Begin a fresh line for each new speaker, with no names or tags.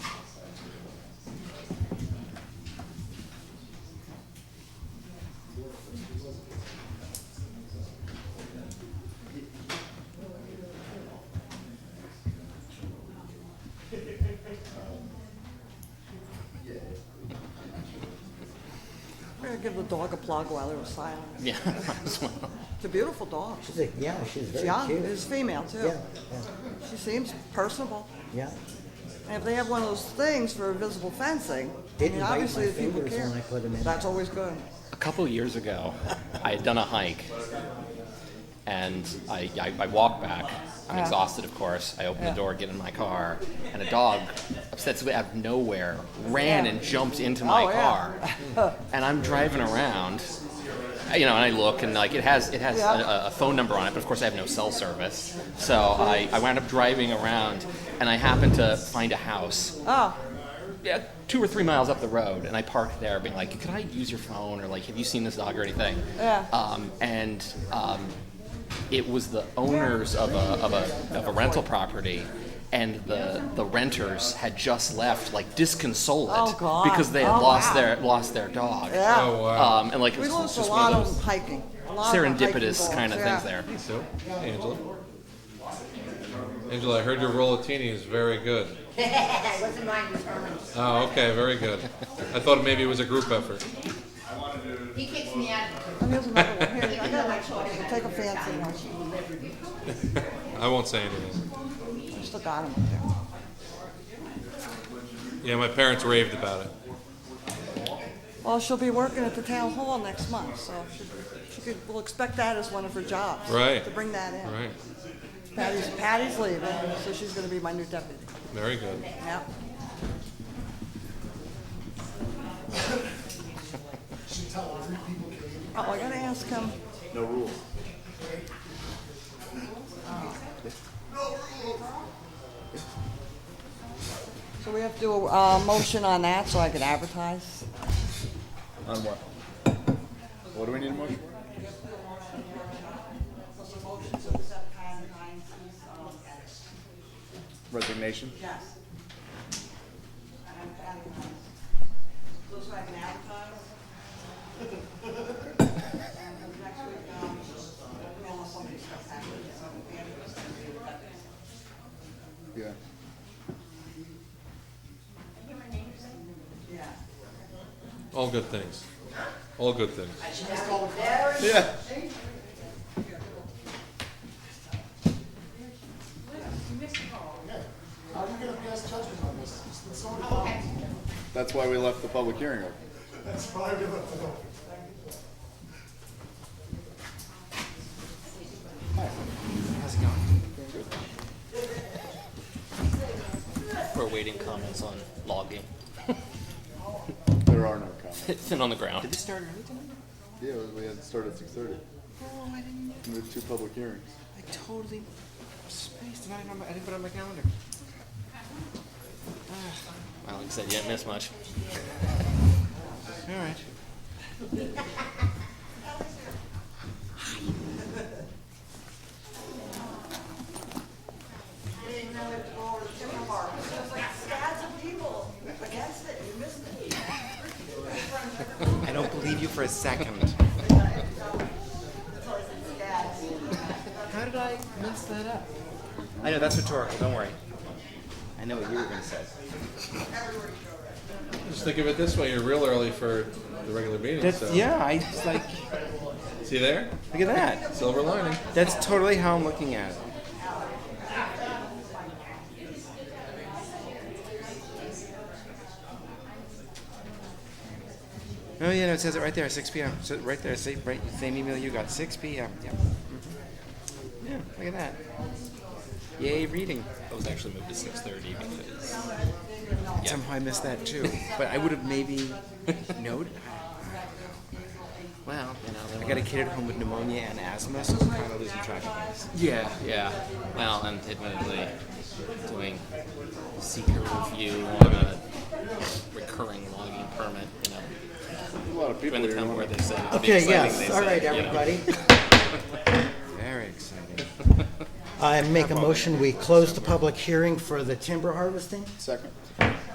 give the dog a plug while he was silent.
Yeah. as well.
It's a beautiful dog.
She's a, yeah, she's
She's
very
young,
cute.
it's female too.
Yeah, yeah,
She seems personable.
yeah.
And if they have one of those things for visible fencing, I
Didn't
mean,
bite my
obviously the people
fingers
care.
when I put 'em in.
That's always good.
A couple years ago, I had done a hike, and I, I, I walked back. I'm
Yeah.
exhausted, of course. I open
Yeah.
the door, get in my car, and a dog, obsessively out of nowhere, ran
Yeah.
and jumped into my
Oh, yeah.
car. and I'm driving around, you know, and I look, and like it has it has
Yeah.
a, a phone number on it, but of course I have no cell service, so I, I wound up driving around, and I happened to find a house
Oh,
yeah, two or three miles up the road, and I parked there, being like, "Could I use your phone?" or like, "Have you seen this dog or anything?"
Yeah.
Um, and um, it was the owners of a of a of a rental property. And the, the renters had just left, like disconsolate,
Oh, God.
because they had
Oh,
lost
wow.
their lost their dog.
Yeah.
Oh, wow.
Um, and like it
we
was
lost a
just
lot of
one of
them
those
hiking. A lot of them hiking
serendipitous
dogs,
kind of
yeah.
things there.
Hey, so, hey, Angela. Angela, I heard your rollatini is very good.
It wasn't mine, it was Herman's.
Oh, okay, very good. I thought maybe it was a group effort.
He kicks me out.
And here's another one. Here, I got
Even though
one.
my children.
Take a fancy one.
She will never be.
I won't say anything.
Just look at him up there.
Yeah, my parents raved about it.
Well, she'll be working at the town hall next month, so she, she could, we'll expect that as one of her jobs.
Right.
To bring that in.
Right,
Patty's, Patty's leaving, so she's gonna be my new deputy.
very good.
Yeah. Oh, I gotta ask him. No rules. So we have to do a uh, motion on that so I can advertise?
On what? What do we need a motion for? Resignation?
Yes. Looks like an advertise. And next week, um, we almost somebody's got that, so we have to send it to the-
Yeah.
Yeah.
All good things. All good things.
Yeah.
How are you gonna pass judgment on this? It's been so
Okay.
That's why we left the public hearing open.
That's why we left it open.
We're waiting comments on logging.
There are no comments.
It's in on the ground.
Yeah, we had to start at six thirty.
Oh, I didn't.
We had two public hearings.
I totally spaced, and I didn't, know my- I didn't put it on my calendar.
Alex said you didn't miss much.
All right.
And now we have to go over to Timber Park. There's like scads of people against it, you missed it.
I don't believe you for a second. How did I mess that up? I know that's rhetorical. Don't worry. I know what you were going to say.
Just think of it this way, you're real early for the regular meeting,
That's
so.
yeah. I just like
See there?
look at that.
Silver lining.
That's totally how I'm looking at it. Oh yeah, no, it says it right there, 6 p.m. So right there, same, right, same email you got, 6 p.m. Yep. Mhm. Yeah, look at that. Yay, reading.
It was actually moved to six thirty because
Somehow I missed that too, but I would have maybe noted. Well, you know, I got a kid at home with pneumonia and asthma, so I'm kind of losing track of things.
Yeah, yeah. Well, and admittedly, doing seeker review on a recurring logging permit, you know,
A lot of people
during the
here.
time where they say it'll be
Okay,
exciting, they
yes,
say,
all right,
you know.
everybody.
Very exciting.
I make a motion, we close the public hearing for the timber harvesting.
Second.